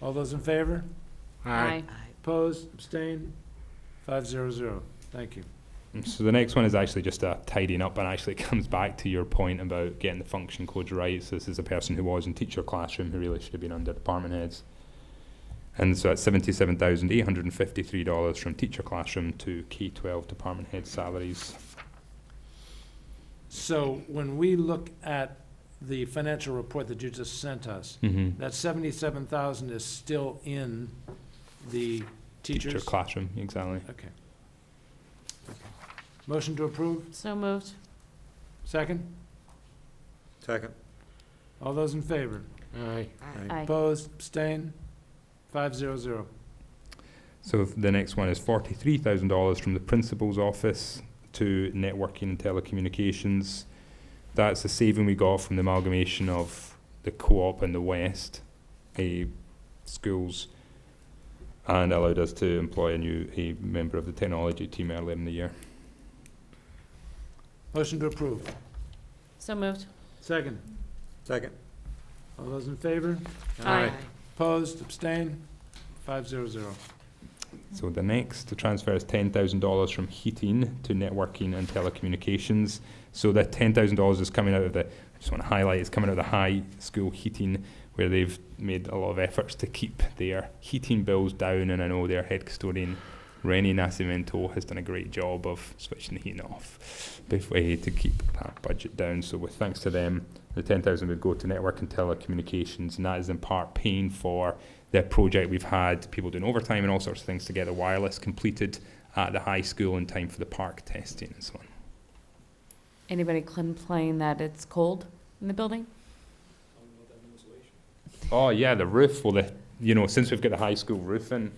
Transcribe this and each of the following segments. All those in favor? Aye. Opposed, abstained, five zero zero. Thank you. So the next one is actually just a tidying up, and actually it comes back to your point about getting the function codes right. So this is a person who was in teacher classroom who really should have been under department heads. And so it's seventy-seven thousand eight hundred and fifty-three dollars from teacher classroom to K twelve department head salaries. So when we look at the financial report that you just sent us, Mm-hmm. that seventy-seven thousand is still in the Teacher teachers? classroom, exactly. Okay. Motion to approve, So moved. second? Second. All those in favor? Aye. Aye. Opposed, abstained, five zero zero. So the next one is forty-three thousand dollars from the principal's office to networking and telecommunications. That's the saving we got from the amalgamation of the co-op and the West a schools, and allowed us to employ a new a member of the technology team earlier in the year. Motion to approve, So moved. second? Second. All those in favor? Aye. Opposed, abstained, five zero zero. So the next to transfer is ten thousand dollars from heating to networking and telecommunications. So that ten thousand dollars is coming out of the. I just want to highlight it's coming out of the high school heating, where they've made a lot of efforts to keep their heating bills down. And I know their head custodian, Rennie Nascimento, has done a great job of switching the heating off before eh, to keep that budget down. So with thanks to them, the ten thousand would go to network and telecommunications, and that is in part paying for that project we've had people doing overtime and all sorts of things to get the wireless completed at the high school in time for the park testing and so on. Anybody complaining that it's cold in the building? Oh yeah, the roof. Well, the you know since we've got the high school roof in,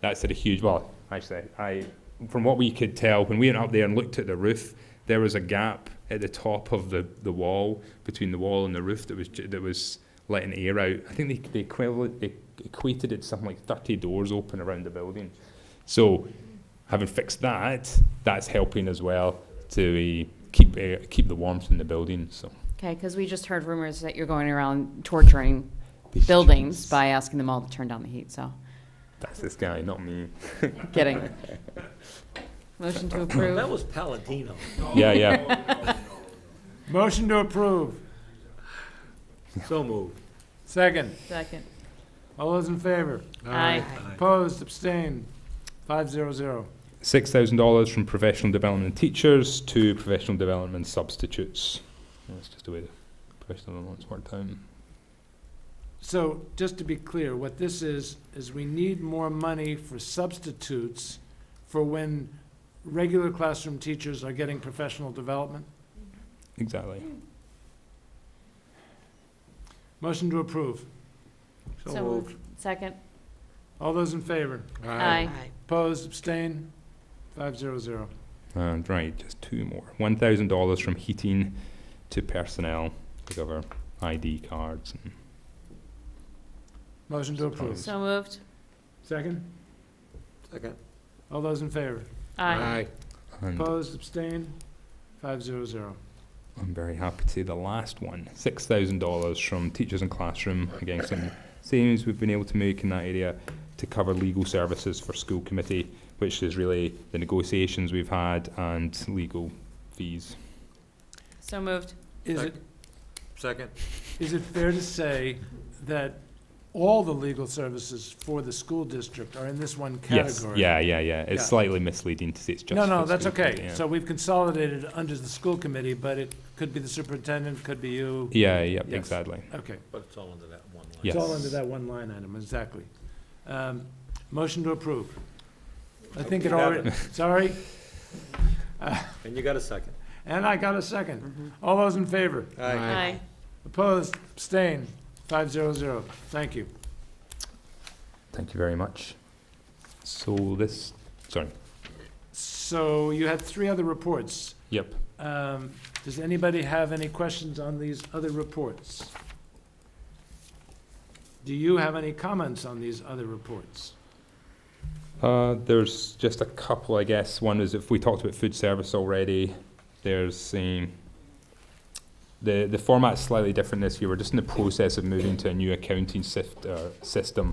that's had a huge. Well, actually, I from what we could tell when we went up there and looked at the roof, there was a gap at the top of the, the wall between the wall and the roof that was ju- that was letting air out. I think they they, equivalent, they equated it to something like thirty doors open around the building. So having fixed that, that's helping as well to uh, keep air, keep the warmth in the building. So Okay, because we just heard rumors that you're going around torturing buildings by asking them all to turn down the heat, so, that's this guy, not me. kidding. Motion to That approve. was Palladino. Yeah, yeah. Motion to approve, So moved. second? Second. All those in favor? Aye. Opposed, abstained, five zero zero. six thousand dollars from professional development teachers to professional development substitutes. That's just the way the professional development's worked out. So, just to be clear, what this is, is we need more money for substitutes for when regular classroom teachers are getting professional development. Exactly. Motion to approve. So moved. Second. All those in favor? Aye. Opposed, abstained, five zero zero. And right, just two more. One thousand dollars from heating to personnel to cover ID cards. And Motion to approve. So moved. Second? Second. All those in favor? Aye. and Opposed, abstained, five zero zero. I'm very happy to see the last one. Six thousand dollars from teachers and classroom. Again, some savings we've been able to make in that area to cover legal services for school committee, which is really the negotiations we've had and legal fees. So moved. Is it, Second. is it fair to say that all the legal services for the school district are in this one Yes, category? yeah, yeah, yeah. It's Yeah. slightly misleading to say it's just. No, for no, the that's school okay. committee, yeah. So we've consolidated it under the school committee, but it could be the superintendent, could be you. Yeah, yeah, Yes. exactly. Okay. But it's all under that one line. Yes. It's all under that one line item, exactly. Um, Motion to approve. I think it You got already, sorry, And you got a second. and I got a second. All those in favor? Aye. Opposed, abstained, five zero zero. Thank you. Thank you very much. So this, sorry. So you had three other reports. Yep. Um, Does anybody have any questions on these other reports? Do you have any comments on these other reports? Uh, there's just a couple, I guess. One is if we talked about food service already, there's um, the the format's slightly different this year. We're just in the process of moving to a new accounting syft, uh, system